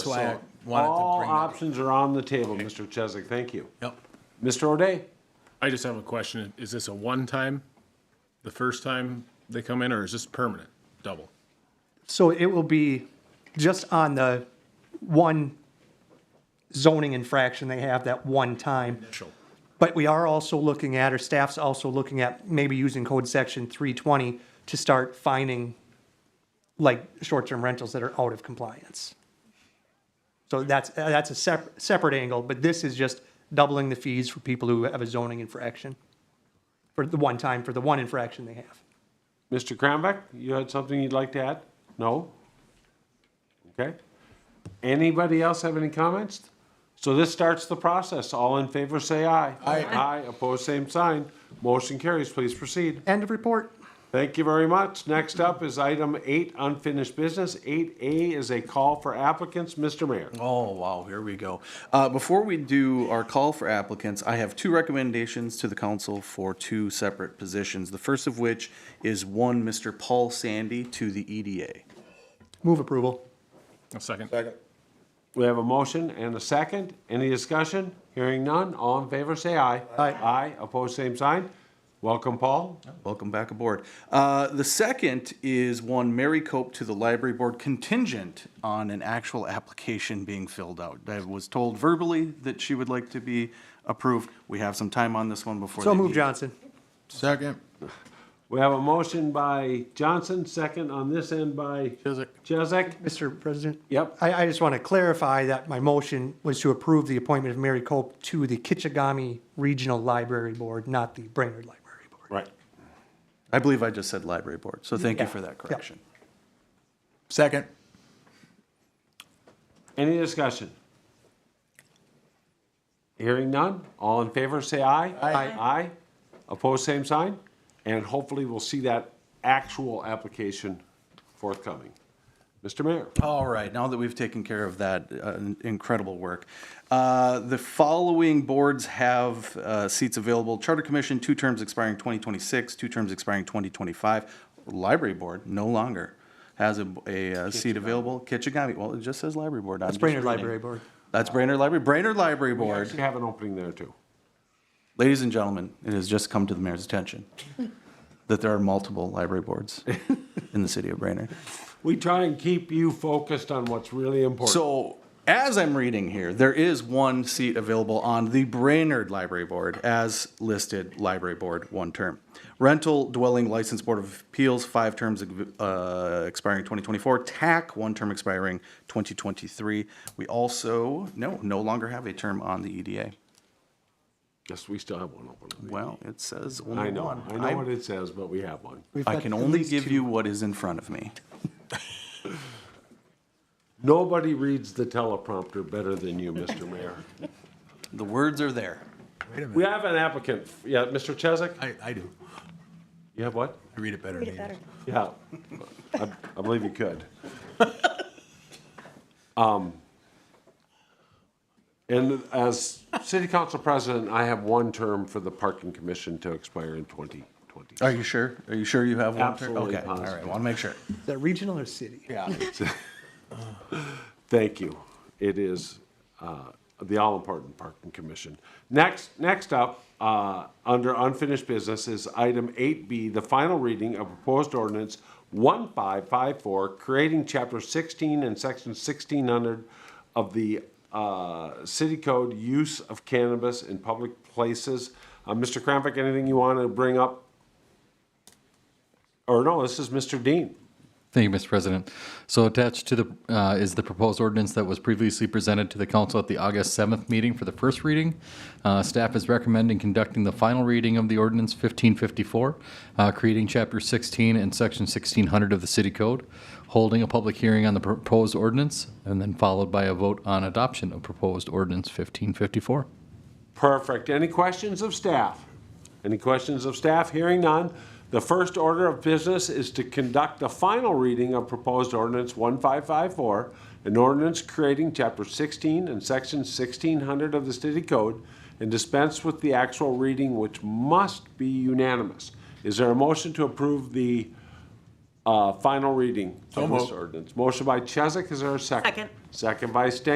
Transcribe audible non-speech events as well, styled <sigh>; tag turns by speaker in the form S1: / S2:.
S1: That's why I
S2: So
S1: wanted to
S2: all
S1: bring that.
S2: options are on the table, Mr. Chesak. Thank you.
S1: Yep.
S2: Mr. O'Day?
S3: I just have a question. Is this a one-time, the first time they come in, or is this permanent, double?
S4: So it will be just on the one zoning infraction they have that one time.
S3: Sure.
S4: But we are also looking at, or staff's also looking at, maybe using code section three twenty to start finding like short-term rentals that are out of compliance. So that's, that's a separate, separate angle, but this is just doubling the fees for people who have a zoning infraction. For the one time, for the one infraction they have.
S2: Mr. Krambeck, you had something you'd like to add? No? Okay. Anybody else have any comments? So this starts the process. All in favor, say aye. Aye. Aye, opposed, same sign. Motion carries. Please proceed.
S4: End of report.
S2: Thank you very much. Next up is item eight, unfinished business. Eight A is a call for applicants. Mr. Mayor.
S1: Oh, wow, here we go. Uh, Before we do our call for applicants, I have two recommendations to the council for two separate positions. The first of which is one Mr. Paul Sandy to the E EDA.
S4: Move approval.
S3: A second.
S2: We have a motion and a second. Any discussion? Hearing none. All in favor, say aye.
S4: Aye.
S2: Aye, opposed, same sign. Welcome, Paul.
S1: Welcome back aboard. Uh, The second is one Mary Cope to the library board contingent on an actual application being filled out. I was told verbally that she would like to be approved. We have some time on this one before.
S4: So
S1: they
S4: move,
S1: meet.
S4: Johnson.
S5: Second.
S2: We have a motion by Johnson, second on this end by
S5: Chizik.
S2: Chesak.
S4: Mr. President?
S2: Yep.
S4: I, I just want to clarify that my motion was to approve the appointment of Mary Cope to the Kichigami Regional Library Board, not the Brainerd Library Board.
S2: Right.
S1: I believe I just said library board, so thank you
S4: Yeah.
S1: for that
S4: Yeah.
S1: correction.
S5: Second.
S2: Any discussion? Hearing none, all in favor, say aye.
S4: Aye.
S2: Aye. Opposed, same sign, and hopefully we'll see that actual application forthcoming. Mr. Mayor,
S1: All right, now that we've taken care of that uh, incredible work, uh, the following boards have uh, seats available. Charter Commission, two terms expiring 2026, two terms expiring 2025. Library Board, no longer has a, a uh, seat available. Kitchigami, well, it just says Library Board. That's
S4: Brainerd Library Board. Oh,
S1: That's Brainerd Library, Brainerd Library Board.
S2: you have an opening there too.
S1: Ladies and gentlemen, it has just come to the mayor's attention that there are multiple library boards in the city of Brainerd.
S2: We try and keep you focused on what's really important.
S1: So, as I'm reading here, there is one seat available on the Brainerd Library Board as listed library board, one term. Rental Dwelling License Board of Appeals, five terms uh, expiring 2024. TAC, one term expiring 2023. We also, no, no longer have a term on the EDA.
S2: Yes, we still have one open.
S1: Well, it says
S2: I
S1: only
S2: know,
S1: one.
S2: I know what it says, but we have one.
S1: I can only give you what is in front of me.
S2: Nobody reads the teleprompter better than you, Mr. Mayor.
S1: The words are there.
S5: Wait
S2: <laughs>
S5: a
S2: We
S5: minute.
S2: have an applicant, yeah, Mr. Chesak,
S5: I, I do.
S2: you have what?
S5: I read it better. than you.
S6: better.
S2: Yeah, I, I believe you <laughs> could. Um, and as city council president, I have one term for the parking commission to expire in twenty twenty.
S1: Are you sure? Are you sure you have one? turn?
S2: Absolutely
S1: Okay, all right,
S2: positive.
S1: want to make sure.
S4: Is that regional or city? Yeah.
S2: Thank you. It is uh, the all-important Parking Commission. Next, next up, uh, under unfinished business is item 8B, the final reading of proposed ordinance 1554, creating Chapter 16 and Section 1600 of the uh, City Code Use of Cannabis in Public Places. Uh, Mr. Kramvik, anything you want to bring up? Or no, this is Mr. Dean.
S7: Thank you, Mr. President. So attached to the, uh, is the proposed ordinance that was previously presented to the council at the August 7th meeting for the first reading. Uh, Staff is recommending conducting the final reading of the ordinance 1554, uh, creating Chapter 16 and Section 1600 of the City Code, holding a public hearing on the proposed ordinance, and then followed by a vote on adoption of proposed ordinance 1554.
S2: Perfect. Any questions of staff? Any questions of staff? Hearing none. The first order of business is to conduct the final reading of proposed ordinance 1554, an ordinance creating Chapter 16 and Section 1600 of the City Code, and dispense with the actual reading, which must be unanimous. Is there a motion to approve the uh, final reading
S5: So
S2: of this
S5: moved.
S2: ordinance. Motion by Chesak, is there a second?
S6: Second.
S2: Second by State.